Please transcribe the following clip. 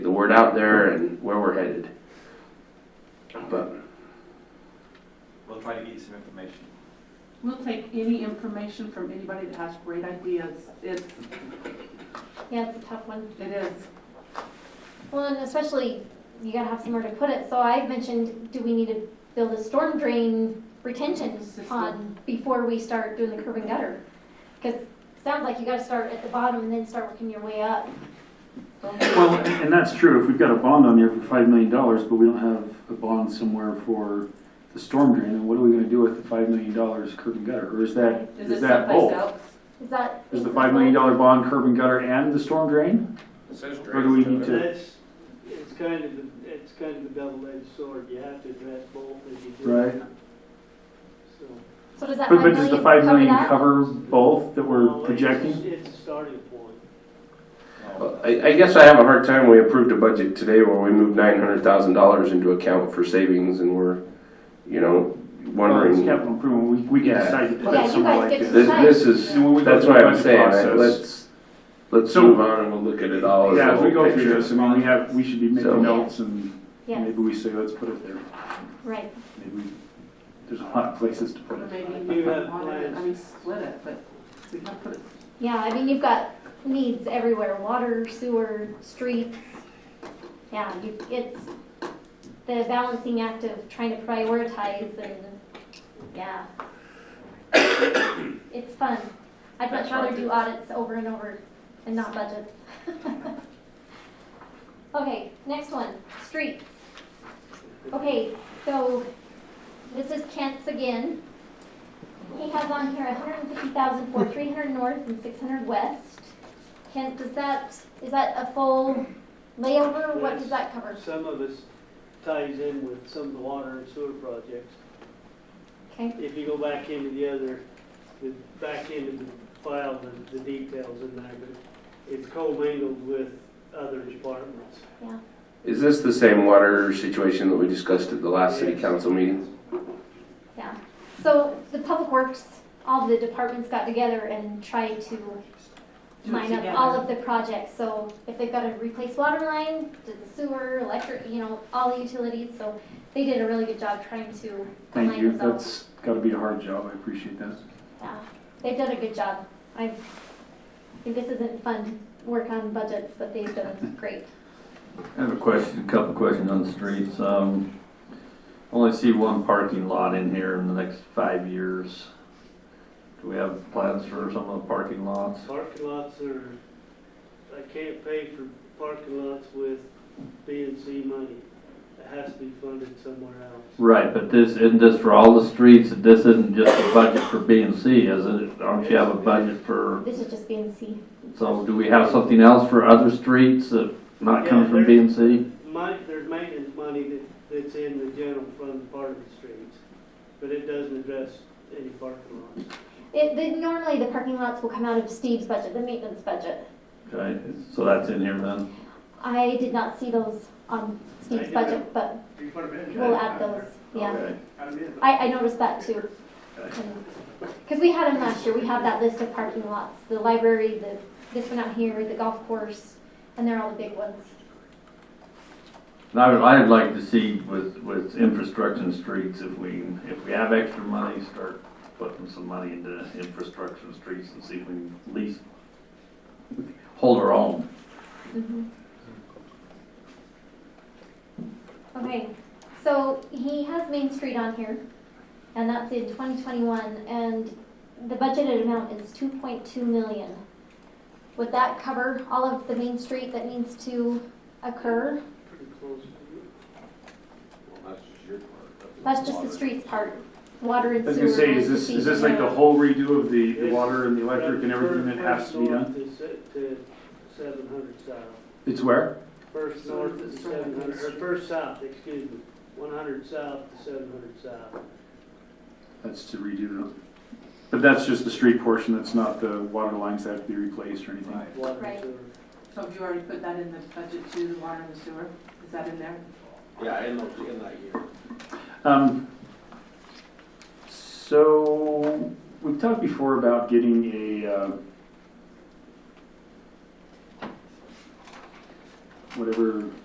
word out there and where we're headed. But We'll try to get you some information. We'll take any information from anybody that has great ideas. It's, Yeah, it's a tough one. it is. Well, and especially you gotta have somewhere to put it. So I mentioned, do we need to build a storm drain retention System. pond before we start doing the curb and gutter? Because it sounds like you gotta start at the bottom and then start working your way up. Well, and and that's true, if we've got a bond on there for five million dollars, but we don't have a bond somewhere for the storm drain, then what are we gonna do with the five million dollars curb and gutter, or is that, Is is it that someplace both? else? Is that? Is the five million dollar bond curb and gutter and the storm drain? Or do we need to? That's, it's kind of, a- it's kind of a double-edged sword, you have to address both as you do. Right. So. So does that But, five but does the million five cover million that? cover both that No, we're it's- projecting? It's a starting point. I, I guess I have a hard time. We approved a budget today where we moved nine hundred thousand dollars into account for savings, and we're, you know, Well, it's wondering. capital improvement, we, we can Yeah. decide to put Yeah, you that somewhere guys like get this. This, this is And when we go that's through what the I'm budget saying. I- process- Let's let's So- move on and we'll look at it all as a Yeah, as we whole go through picture. this, I mean, we have, we should be So- making notes and maybe Yes, we say, let's put it there. right. Maybe, we- there's a lot of places to put it. Maybe You have on it, I mean, plans. split it, but we can put it, Yeah, I mean, you've got needs everywhere, water, sewer, streets. Yeah, you, it's the balancing act of trying to prioritize and, yeah. It's fun. I'd much rather do audits over and over and not budgets. Okay, next one, streets. Okay, so this is Kent's again. He has on here hundred and fifty thousand for three hundred north and six hundred west. Kent, does that, is that a full layover? What does that cover? Some of this ties in with some of the water and sewer projects. Okay, If you go back into the other, the back into the file, the, the details in there, but it's commingled with other departments. Is this the same water situation that we discussed at the last city council meeting? yeah. So the public works, all the departments got together and tried to do it line up all together. of the projects. So if they've got to replace water line, did the sewer, electric, you know, all the utilities. So they did a really good job trying to Thank you, line those up. that's gotta be a hard job, I appreciate that. Yeah, they've done a good job. I think this isn't fun to work on budgets, but they've done great. I have a question, a couple questions on the streets. Um, I only see one parking lot in here in the next five years. Do we have plans for some of the parking lots? Parking lots are, I can't pay for parking lots with B and C money. It has to be funded somewhere else. Right, but this, isn't this for all the streets? This isn't just a budget for B and C, is it? Don't you have a budget for, This is just B and C. so do we have something else for other streets that not coming from B and C? My, there's maintenance money that, that's in the general fund part of the streets, but it doesn't address any parking lots. It, they, normally the parking lots will come out of Steve's budget, the maintenance budget. Okay, so that's in here then. I did not see those on Steve's budget, but we'll add those, yeah. Okay. I, I noticed that too. Because we had them last year, we have that list of parking lots, the library, the, this one out here, the golf course, and they're all the big ones. And I would, I'd like to see with, with infrastructure and streets, if we, if we have extra money, start putting some money into infrastructure and streets and see if we can at least hold our own. Mhm. Okay, so he has Main Street on here, and that's in twenty twenty-one, and the budgeted amount is two point two million. Would that cover all of the Main Street that needs to occur? Pretty close. That's just the streets part, water and I sewer. was gonna say, is this, is this like the whole redo of the, the Yes. water and the electric and everything that has to be done? seven hundred south. It's where? First So north it's the to sort of seven hundred, or district. first south, excuse me, one hundred south to seven hundred south. That's to redo it. But that's just the street portion, that's not the water lines that have to be replaced or anything. Water Right. and sewer. So have you already put that in the budget to the water and the sewer? Is that in there? Yeah, in, in that year. Um, so, we've talked before about getting a, uh, whatever